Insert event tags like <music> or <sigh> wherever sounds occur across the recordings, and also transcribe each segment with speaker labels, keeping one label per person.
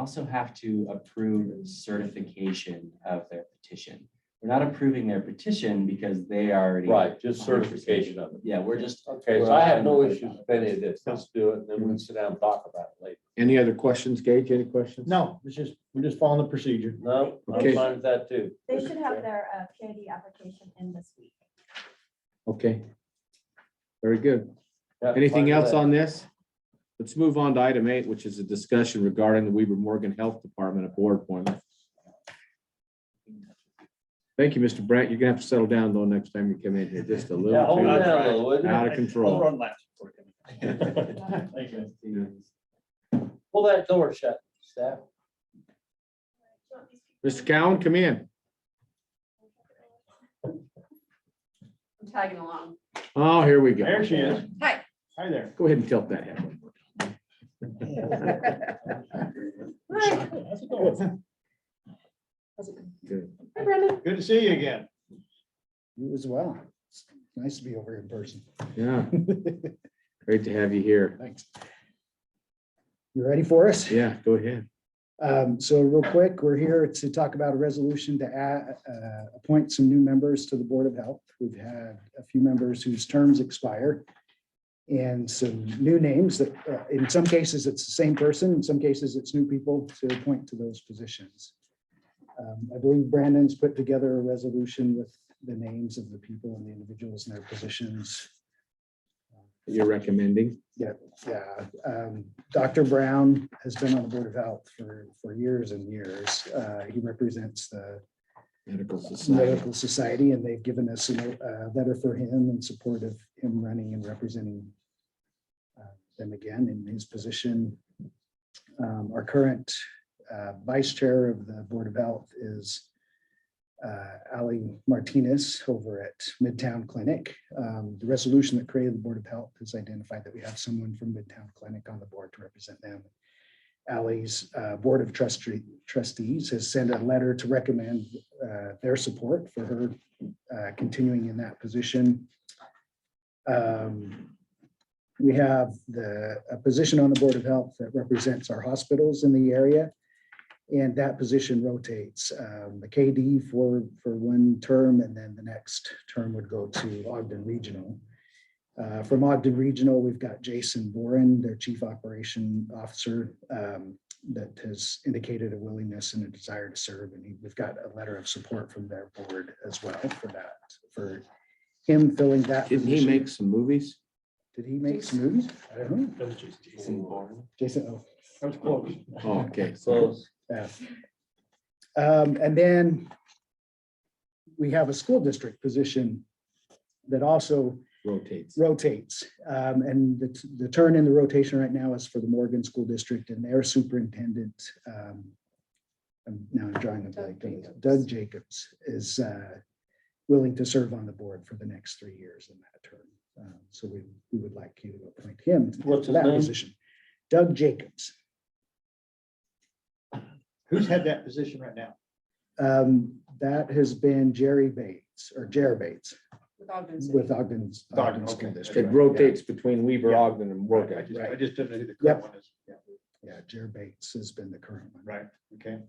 Speaker 1: also have to approve certification of their petition. We're not approving their petition because they already.
Speaker 2: Right, just certification of it.
Speaker 1: Yeah, we're just.
Speaker 2: Okay, so I have no issues with any of this. Let's do it, and then we can sit down and talk about it later.
Speaker 3: Any other questions, Gage? Any questions?
Speaker 4: No, it's just, we're just following the procedure.
Speaker 2: No, I'm
Speaker 3: Okay.
Speaker 2: fine with that too.
Speaker 5: They should have their uh, PID application in this week.
Speaker 3: Okay. Very good.
Speaker 2: Yeah, fine
Speaker 3: Anything
Speaker 2: with
Speaker 3: else
Speaker 2: that.
Speaker 3: on this? Let's move on to item eight, which is a discussion regarding the Weaver Morgan Health Department of Board appointment. Thank you, Mr. Brandt. You're gonna have to settle down though next time you come in here, just a
Speaker 2: Yeah,
Speaker 3: little
Speaker 2: hold on
Speaker 3: too
Speaker 2: down a little, would you?
Speaker 3: out of control.
Speaker 4: Thank you.
Speaker 2: Pull that door shut, staff.
Speaker 3: Mr. Cowan, come in.
Speaker 6: I'm tagging along.
Speaker 3: Oh, here we go.
Speaker 4: There she is.
Speaker 6: Hi.
Speaker 4: Hi there.
Speaker 3: Go ahead and tilt that head.
Speaker 6: Hi,
Speaker 4: How's it going?
Speaker 3: <laughs> Good.
Speaker 6: hi, Brendan.
Speaker 4: Good to see you again.
Speaker 7: You as well. It's Nice to be over in person.
Speaker 3: Yeah. Great to have you here.
Speaker 7: Thanks. You ready for us?
Speaker 3: Yeah, go ahead.
Speaker 7: Um, So real quick, we're here to talk about a resolution to add, uh, appoint some new members to the Board of Health. We've had a few members whose terms expire. And some new names that, uh, in some cases, it's the same person, in some cases, it's new people to appoint to those positions. Um, I believe Brandon's put together a resolution with the names of the people and the individuals and their positions.
Speaker 3: You're recommending.
Speaker 7: Yeah, um, Dr. Brown has been on the Board of Health for, for years and years. Uh, he represents the
Speaker 3: Medical Society.
Speaker 7: Medical Society and they've given us a uh, letter for him in support of him running and representing uh, them again in his position. Um, our current, uh, Vice Chair of the Board of Health is uh, Ali Martinez over at Midtown Clinic. Um, The resolution that created the Board of Health has identified that we have someone from Midtown Clinic on the board to represent them. Ali's uh, Board of Trustee- Trustees has sent a letter to recommend uh, their support for her uh, continuing in that position. Um, We have the, a position on the Board of Health that represents our hospitals in the area. And that position rotates, um, the KD for, for one term, and then the next term would go to Ogden Regional. Uh, From Ogden Regional, we've got Jason Boren, their Chief Operation Officer, um, that has indicated a willingness and a desire to serve, and he- we've got a letter of support from their board as well for that, for him filling that.
Speaker 3: Didn't he
Speaker 7: position.
Speaker 3: make some movies?
Speaker 7: Did he make some movies? I don't know. Oh,
Speaker 1: Jason Bourne.
Speaker 7: Jason, oh.
Speaker 4: That was close.
Speaker 3: Oh, okay.
Speaker 2: Close.
Speaker 7: Yeah. Um, and then we have a school district position that also
Speaker 3: Rotates.
Speaker 7: rotates. Um, and the, the turn in the rotation right now is for the Morgan School District and their superintendent. um, I'm now drawing a blank.
Speaker 6: Doug Jacobs.
Speaker 7: Doug Jacobs is, uh, willing to serve on the board for the next three years in that term. Um, So we, we would like you to appoint him
Speaker 2: What's
Speaker 7: to
Speaker 2: his
Speaker 7: that
Speaker 2: name?
Speaker 7: position. Doug Jacobs.
Speaker 4: Who's had that position right now?
Speaker 7: Um, that has been Jerry Bates or Jer Bates
Speaker 6: With Ogden City.
Speaker 7: with Ogden's.
Speaker 4: Ogden,
Speaker 7: Ogden School
Speaker 4: okay.
Speaker 7: District.
Speaker 3: It rotates between Weaver,
Speaker 4: Yeah.
Speaker 3: Ogden and
Speaker 4: I
Speaker 3: Morgan.
Speaker 4: just, I
Speaker 7: Right.
Speaker 4: just didn't know who the
Speaker 7: Yep.
Speaker 4: current one is. Yeah,
Speaker 7: Yeah, Jer Bates has been the current one.
Speaker 4: Right, okay.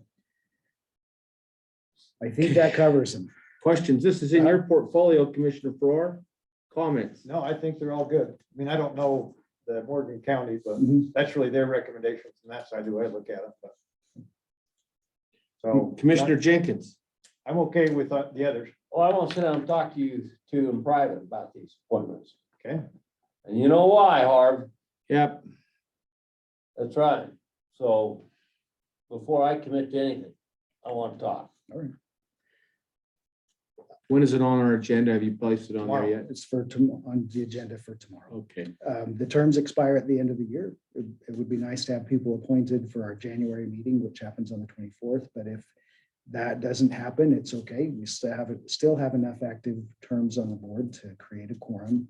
Speaker 7: I think that covers him.
Speaker 3: Questions? This is in your portfolio, Commissioner Farrar. Comments?
Speaker 4: No, I think they're all good. I mean, I don't know the Morgan County, but
Speaker 7: Mhm.
Speaker 4: that's really their recommendations and that's I do, I look at it, but. So.
Speaker 3: Commissioner Jenkins.
Speaker 4: I'm okay with uh, the others.
Speaker 2: Well, oh, I want to sit down and talk to you two in private about these appointments.
Speaker 4: Okay.
Speaker 2: And you know why, Harv?
Speaker 3: Yep.
Speaker 2: That's right. So before I commit to anything, I want to talk.
Speaker 3: When is it on our agenda? Have you placed it on there
Speaker 4: Tomorrow.
Speaker 3: yet?
Speaker 7: It's for, tom- on the agenda for tomorrow.
Speaker 3: Okay.
Speaker 7: Um, the terms expire at the end of the year. It it would be nice to have people appointed for our January meeting, which happens on the twenty-fourth, but if that doesn't happen, it's okay. We still have, still have enough active terms on the board to create a quorum.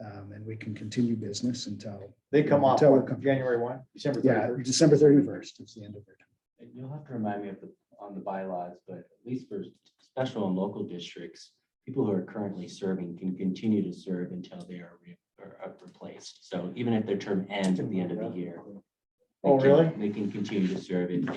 Speaker 7: Um, and we can continue business until
Speaker 4: They come off
Speaker 7: Tell
Speaker 4: what,
Speaker 7: them.
Speaker 4: January one, December
Speaker 7: Yeah,
Speaker 4: thirty-first.
Speaker 7: December thirty-first is the end of their term.
Speaker 1: And You'll have to remind me of the, on the bylaws, but at least for special and local districts, people who are currently serving can continue to serve until they are re- are, uh, replaced. So even if their term ends at the end of the year, they
Speaker 4: Oh,
Speaker 1: can-
Speaker 4: really?
Speaker 1: They can continue to serve in